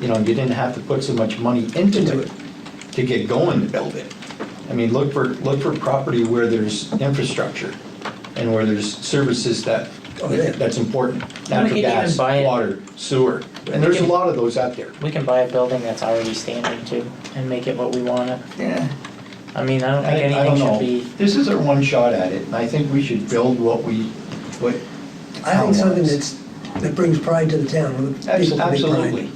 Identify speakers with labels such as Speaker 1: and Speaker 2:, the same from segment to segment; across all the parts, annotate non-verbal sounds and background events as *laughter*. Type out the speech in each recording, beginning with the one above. Speaker 1: you know, you didn't have to put so much money into
Speaker 2: Into
Speaker 1: it
Speaker 2: it.
Speaker 1: to get going to build it. I mean, look for, look for property where there's infrastructure and where there's services that,
Speaker 2: Oh, yeah.
Speaker 1: that's important.
Speaker 3: And we
Speaker 1: Natural
Speaker 3: can even
Speaker 1: gas,
Speaker 3: buy it.
Speaker 1: water, sewer, and there's a lot of those out there.
Speaker 3: We can buy a building that's already standard too and make it what we want it.
Speaker 1: Yeah.
Speaker 3: I mean, I don't
Speaker 1: I,
Speaker 3: think
Speaker 1: I don't
Speaker 3: anything
Speaker 1: know.
Speaker 3: should be,
Speaker 1: This is our one shot at it, and I think we should build what we, what.
Speaker 2: I think something
Speaker 1: wants.
Speaker 2: that's, that brings pride to the town, where the
Speaker 1: Abs-
Speaker 2: people can
Speaker 1: Absolutely.
Speaker 2: be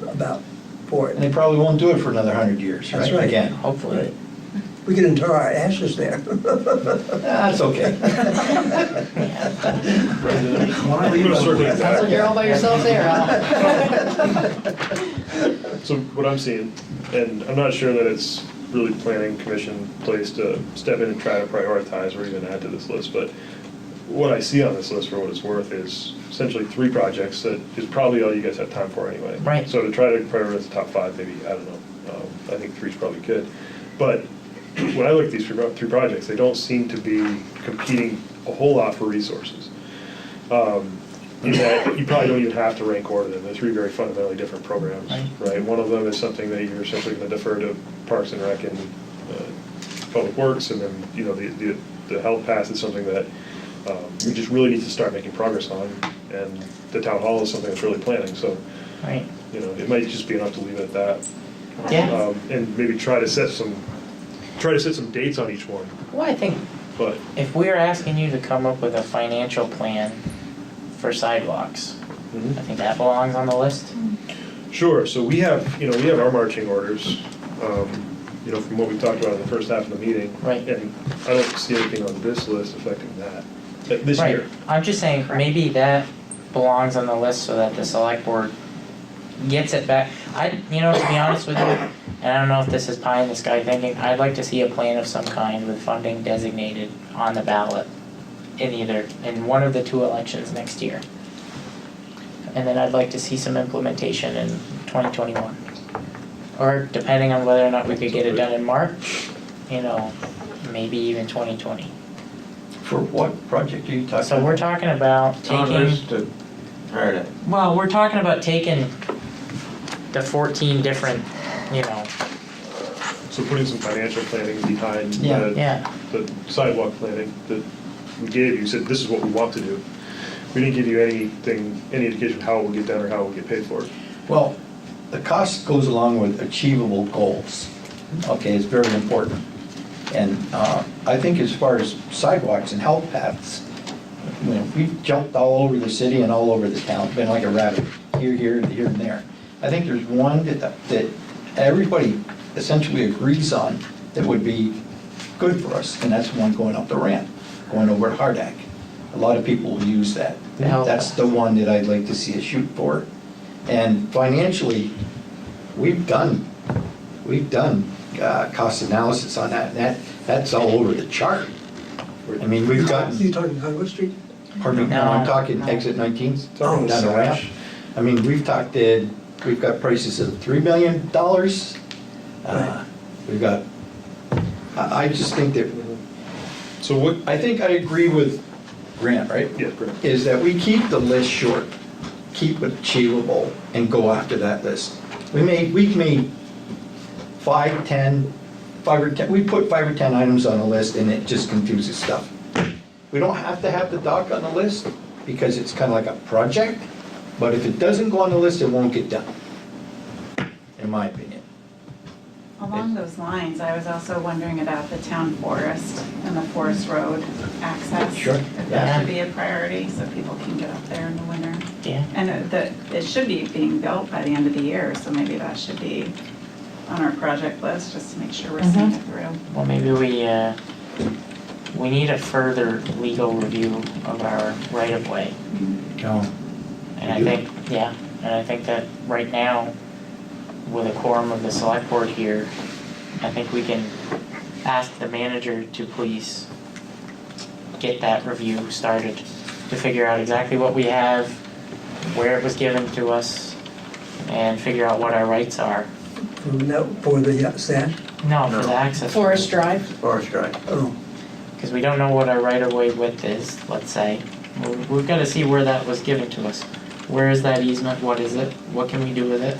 Speaker 2: pride about, for
Speaker 1: And
Speaker 2: it.
Speaker 1: they probably won't do it for another hundred years, right?
Speaker 2: That's right.
Speaker 1: Again,
Speaker 3: hopefully.
Speaker 2: We can inter our
Speaker 1: *laughs*
Speaker 2: ashes there.
Speaker 1: Ah, that's okay.
Speaker 4: Why are you
Speaker 5: We'll circle
Speaker 4: doing
Speaker 5: back.
Speaker 4: that?
Speaker 6: So you're all by yourself there, huh?
Speaker 2: *laughs*
Speaker 5: So what I'm seeing, and I'm not sure that it's really planning commission place to step in and try to prioritize or even add to this list, but what I see on this list for what it's worth is essentially three projects that is probably all you guys have time for anyway.
Speaker 3: Right.
Speaker 5: So to try to prioritize the top five, maybe, I don't know, um, I think three's probably good. But *clears throat* when I look at these three pro- three projects, they don't seem to be competing a whole lot for resources um, in that you probably don't even have to rank order them. They're three very fundamentally different programs, right? One of them is something that you're simply going to defer to Parks and Rec and uh, Public Works, and then, you know, the, the, the health pass is something that um, we just really need to start making progress on, and the town hall is something that's really planning, so,
Speaker 3: Right.
Speaker 5: you know, it might just be enough to leave it at that.
Speaker 3: Yeah.
Speaker 5: Um, And maybe try to set some, try to set some dates on each one,
Speaker 3: Well, I think
Speaker 5: but
Speaker 3: if we're asking you to come up with a financial plan for sidewalks,
Speaker 1: Mm-hmm.
Speaker 3: I think that belongs on the list.
Speaker 5: Sure, so we have, you know, we have our marching orders, um, you know, from what we talked about in the first half of the meeting.
Speaker 3: Right.
Speaker 5: And I don't see anything on this list affecting that, uh, this
Speaker 3: Right.
Speaker 5: year.
Speaker 3: I'm just saying, maybe that belongs on the list so that the select board gets it back. I, you know, to be honest with you, and I don't know if this is pie in the sky thinking, I'd like to see a plan of some kind with funding designated on the ballot in either, in one of the two elections next year. And then I'd like to see some implementation in twenty twenty-one. Or depending on whether or not we could get it done in March, you know, maybe even twenty twenty.
Speaker 1: For what project are you talking about?
Speaker 3: So we're talking about
Speaker 4: Town
Speaker 3: taking,
Speaker 4: is to, heard it.
Speaker 3: well, we're talking about taking the fourteen different, you know,
Speaker 5: So putting some financial planning behind
Speaker 1: Yeah,
Speaker 5: the
Speaker 3: yeah,
Speaker 5: the sidewalk planning that we gave you, said this is what we want to do. We didn't give you anything, any indication how it will get done or how it will get paid for.
Speaker 1: Well, the cost goes along with achievable goals, okay, it's very important. And uh, I think as far as sidewalks and health paths, you know, we've jumped all over the city and all over the town, been like a rabbit, here, here, and here and there. I think there's one that, that everybody essentially agrees on that would be good for us, and that's the one going up the ramp, going over to Hardak. A lot of people will use that.
Speaker 3: The health
Speaker 1: That's the one that I'd like to see us shoot for. And financially, we've done, we've done uh, cost analysis on that, and that, that's all over the chart. I mean, *laughs* we've gotten.
Speaker 2: You talking Congress Street?
Speaker 1: Pardon me, no, I'm
Speaker 3: No,
Speaker 1: talking
Speaker 3: no.
Speaker 1: exit 19, down
Speaker 2: Oh,
Speaker 1: the ramp.
Speaker 5: gosh.
Speaker 1: I mean, we've talked, uh, we've got prices of $3 million. Uh,
Speaker 2: Right.
Speaker 1: We've got, I, I just think that,
Speaker 5: So what,
Speaker 1: I think I agree with Grant, right?
Speaker 5: yeah, Brent.
Speaker 1: Is that we keep the list short, keep it achievable, and go after that list. We made, we've made five, 10, five or 10, we put five or 10 items on a list, and it just confuses stuff. We don't have to have the dock on the list because it's kind of like a project, but if it doesn't go on the list, it won't get done, in my opinion.
Speaker 6: Along those lines, I was also wondering about the town forest and the forest road access.
Speaker 1: Sure,
Speaker 6: If
Speaker 3: yeah.
Speaker 6: that should be a priority, so people can get up there in the winter.
Speaker 3: yeah.
Speaker 6: And it- the, it should be being built by the end of the year, so maybe that should be on our project list, just to make sure we're seeing it through.
Speaker 3: Well, maybe we, uh, we need a further legal review of our right of way.
Speaker 1: No.
Speaker 3: And I
Speaker 1: You do?
Speaker 3: think, yeah, and I think that right now, with a quorum of the select board here, I think we can ask the manager to please get that review started to figure out exactly what we have, where it was given to us, and figure out what our rights are.
Speaker 2: For no- For the uh, sand?
Speaker 3: No, for
Speaker 4: No.
Speaker 3: the access.
Speaker 6: Forest Drive?
Speaker 4: Forest Drive.
Speaker 2: Oh,
Speaker 3: Because we don't know what our right of way width is, let's say. We- We've got to see where that was given to us. Where is that easement? What is it? What can we do with it?